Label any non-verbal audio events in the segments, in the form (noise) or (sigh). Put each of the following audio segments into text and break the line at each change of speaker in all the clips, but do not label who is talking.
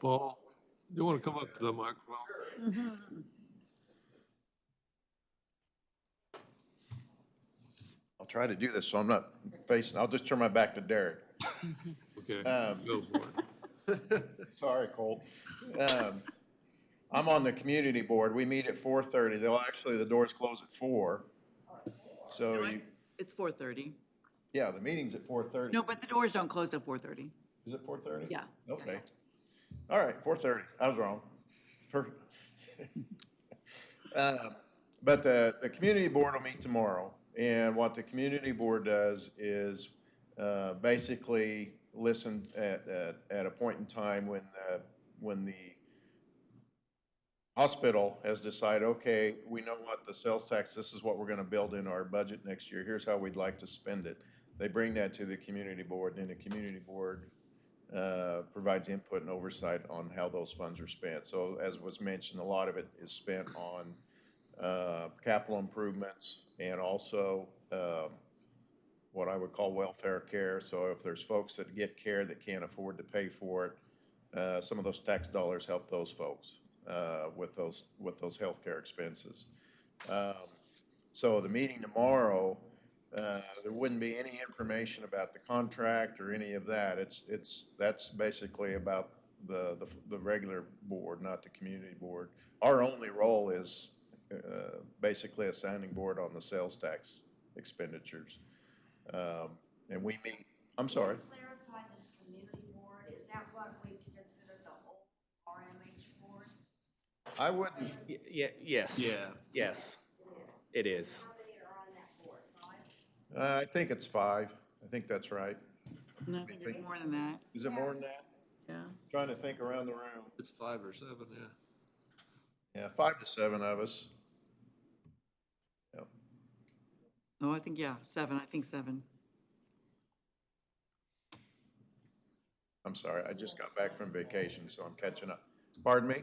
Paul, you want to come up to the microphone?
I'll try to do this, so I'm not facing, I'll just turn my back to Derek.
Okay, go for it.
Sorry, Colt. Um, I'm on the community board. We meet at four thirty. They'll, actually, the doors close at four. So you,
It's four thirty.
yeah, the meeting's at four thirty.
No, but the doors don't close till four thirty.
Is it four thirty?
Yeah.
Okay. All right, four thirty. I was wrong. Perfect. (laughs) Um, But the, the community board will meet tomorrow, and what the community board does is uh, basically listen at, at, at a point in time when, uh, when the hospital has decided, okay, we know what the sales tax, this is what we're gonna build in our budget next year, here's how we'd like to spend it. They bring that to the community board, and then the community board uh, provides input and oversight on how those funds are spent. So as was mentioned, a lot of it is spent on uh, capital improvements and also um, what I would call welfare care. So if there's folks that get care that can't afford to pay for it, uh, some of those tax dollars help those folks uh, with those, with those healthcare expenses. Um, So the meeting tomorrow, uh, there wouldn't be any information about the contract or any of that. It's, it's, that's basically about the, the, the regular board, not the community board. Our only role is, uh, basically a sounding board on the sales tax expenditures. Um, and we meet, I'm sorry,
Clarify this community board, is that what we consider the whole RMH board?
I wouldn't,
Y- Yeah, yes.
Yeah.
Yes, it is.
How many are on that board, five?
uh, I think it's five. I think that's right.
No, I think there's more than that,
Is it more than that?
yeah.
Trying to think around the room.
It's five or seven, yeah.
Yeah, five to seven of us. Yep.
Oh, I think, yeah, seven, I think seven.
I'm sorry, I just got back from vacation, so I'm catching up. Pardon me?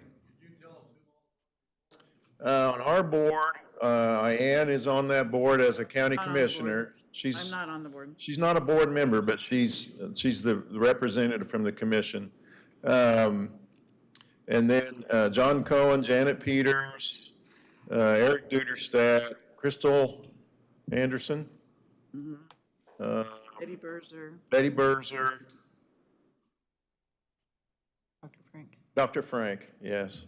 Uh, on our board, uh, Ann is on that board as a county
on the board.
commissioner.
I'm
She's,
not on the board.
she's not a board member, but she's, she's the representative from the commission. Um, and then, uh, John Cohen, Janet Peters, uh, Eric Duderstadt, Crystal Anderson,
Eddie Berzer,
Betty Berzer,
Dr. Frank.
Dr. Frank, yes.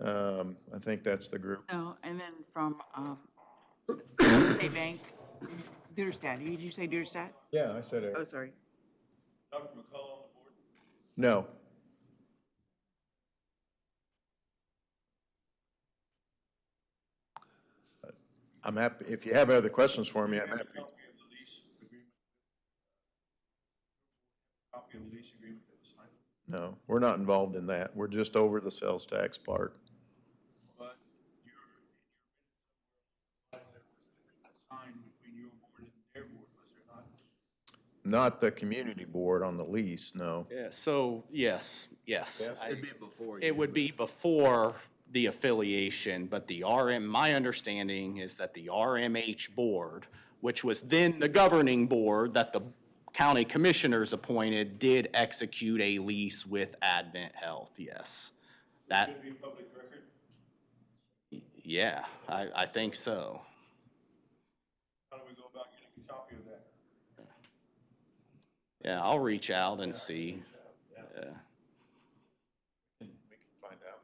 Um, I think that's the group.
No, and then from, (coughs) um, State Bank, Duderstadt, did you say Duderstadt?
Yeah, I said
Oh,
Eric.
sorry.
No. Uh, I'm happy, if you have other questions for me, I'm happy.
Copy of the lease agreement. Copy of the lease agreement that was signed,
No, we're not involved in that. We're just over the sales tax part.
but you're, you're signed between your board and their board, was there not?
Not the community board on the lease, no.
Yeah, so, yes, yes. I-
It'd be before you.
It would be before the affiliation, but the RM, my understanding is that the RMH board, which was then the governing board that the county commissioners appointed, did execute a lease with Advent Health, yes. That,
Should be public record,
yeah, I, I think so.
how do we go about getting a copy of that?
Yeah, I'll reach out and see. Yeah.
We can find out.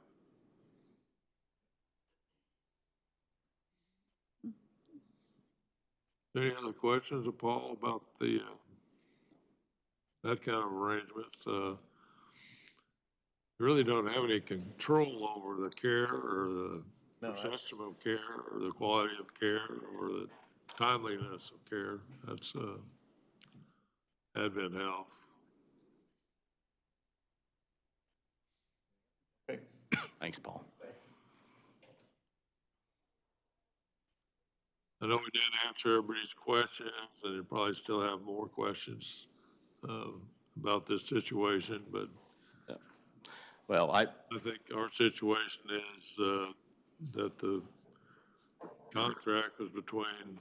Any other questions of Paul about the, uh, that kind of arrangements? Uh, You really don't have any control over the care or the
No, that's-
system of care or the quality of care or the timeliness of care. That's uh, Advent Health.
Okay.
Thanks, Paul.
I know we didn't answer everybody's questions, and you probably still have more questions um, about this situation, but
Well, I,
I think our situation is uh, that the contract was between